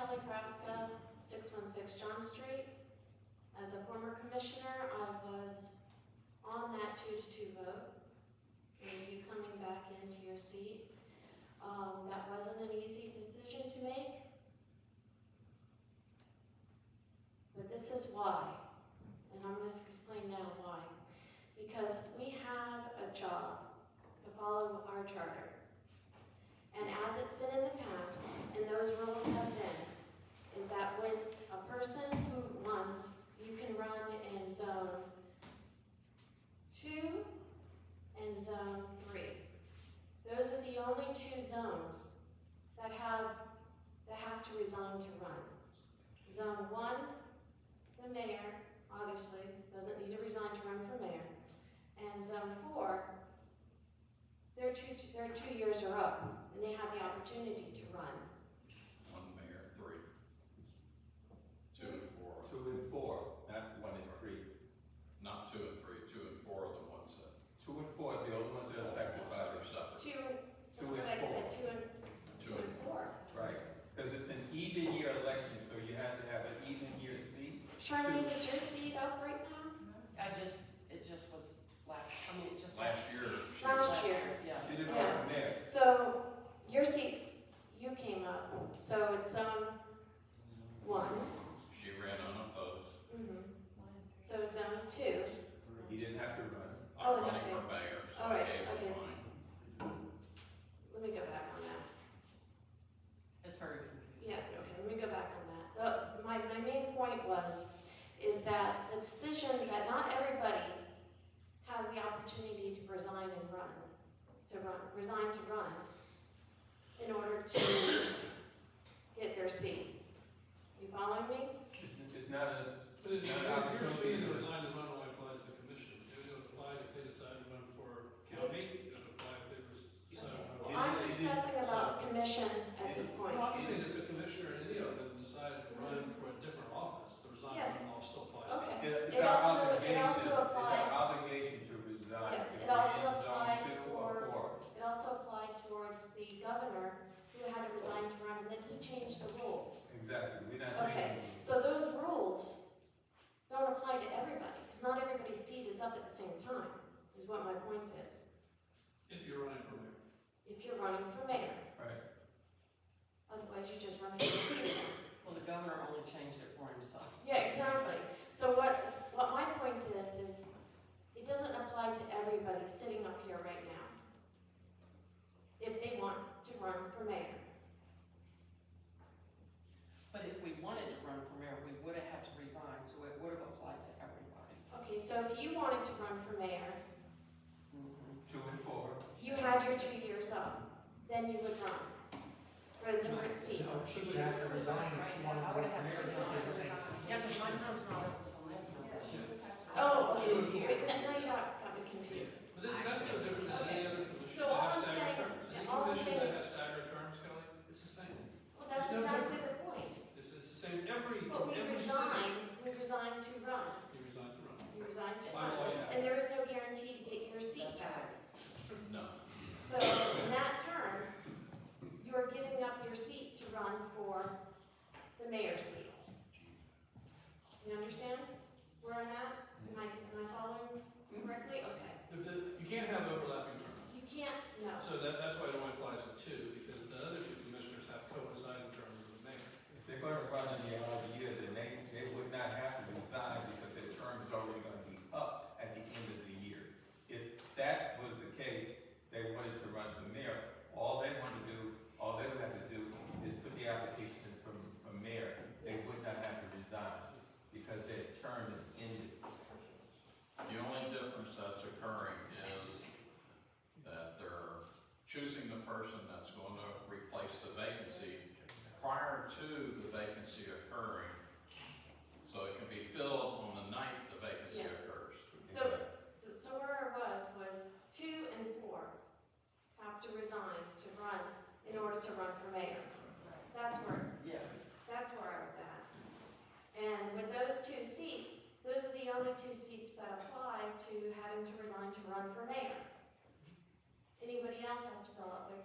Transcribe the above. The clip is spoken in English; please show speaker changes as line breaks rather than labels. Nebraska, six one six John Street. As a former commissioner, I was on that two to two vote. You'll be coming back into your seat. Um, that wasn't an easy decision to make. But this is why, and I'm gonna explain now why. Because we have a job to follow our charter. And as it's been in the past, and those rules have been, is that when a person who runs, you can run in zone two and zone three. Those are the only two zones that have, that have to resign to run. Zone one, the mayor, obviously, doesn't need to resign to run for mayor. And zone four, their two, their two years are up, and they have the opportunity to run.
One mayor, three. Two and four,
Two and four, not one and three.
not two and three, two and four are the ones that.
Two and four, the other ones are elected by
Ones
the
that are separate.
Two, that's
Two
what I
and
said,
four,
two and,
Two and
four.
right. Because it's an even year election, so you have to have an even year seat.
Charlene, is your seat up right now?
I just, it just was last, I mean, it just.
Last year, she was,
Last year.
Yeah.
Did it go from there?
So, your seat, you came up, so it's, um, one,
she ran unopposed.
mhm. so it's zone two,
He didn't have to run.
Oh,
I'm running for
okay.
mayor, so
All
I
right,
gave her
okay.
mine.
let me go back on that,
It's very confusing.
yeah, okay, let me go back on that. The- my, my main point was, is that the decision that not everybody has the opportunity to resign and run, to run, resign to run, in order to get their seat. You following me?
It's, it's not a,
But it's
Not an
not, your
opportunity
senior
to-
design and run only applies to commission, it would apply if they decide to run for county, it would apply if they decide to
Well,
run.
Is
I'm
it- is it-
discussing about the commission at this point.
Well, Obviously, if the commissioner and any of them decide to run for a different office, the
Yes.
resign law still applies.
Okay.
it's
It
our
also- it
obligation,
also
it's our
applied-
obligation to resign.
Yes,
if
it
we're in
also
zone
applied
two or
for-
four.
It also applied towards the governor who had to resign to run, and then he changed the rules.
Exactly, we're not
Okay.
changing.
So those rules don't apply to everybody, because not everybody's seat is up at the same time, is what my point is,
If you're running for mayor,
if you're running for mayor.
Right.
Otherwise, you just run for the seat.
Well, the governor only changed it for himself.
Yeah, exactly. So what, what my point is, is it doesn't apply to everybody sitting up here right now. If they want to run for mayor.
But if we wanted to run for mayor, we would have had to resign, so it would have applied to everybody.
Okay, so if you wanted to run for mayor,
Two and four.
you had your two years up, then you would run for a different seat.
No, she would have to resign if she wanted
I
to
would
run
have
for
had to
mayor.
resign. Yeah, because my time's not up until next month.
Oh, okay,
Two
wait, no, no, you got, got me confused.
but this, that's no different than any other commission
So
that
all I'm
has staggered
saying-
terms,
yeah,
any
all I'm
commission
saying
that
is-
has staggered terms, Kelly, it's the same,
Well, that's
It's no
exactly the point.
it's, it's the same, every,
But we
every
resign,
city,
we resign to run,
you resign to run.
you resign to
Why
run,
would I?
and there is no guarantee to get your seat back.
No,
So in that term, you are giving up your seat to run for the mayor's seat. You understand where I'm at? Am I, am I following correctly? Okay.
The- the- You can't have overlapping terms.
You can't, no.
So that, that's why it only applies to two, because the other two commissioners have coincided in terms of the mayor.
If they're gonna run in the other year, then they, they would not have to resign because their term is already gonna be up at the end of the year. If that was the case, they wanted to run for mayor, all they want to do, all they would have to do is put the application in from, from mayor. They would not have to resign because their term is ended.
the only difference that's occurring is that they're choosing the person that's going to replace the vacancy prior to the vacancy occurring. So it can be filled on the night the vacancy
Yes.
occurs.
So, so so where I was, was two and four have to resign to run, in order to run for mayor. That's where,
Yeah,
that's where I was at. And with those two seats, those are the only two seats that apply to having to resign to run for mayor. Anybody else has to fill out their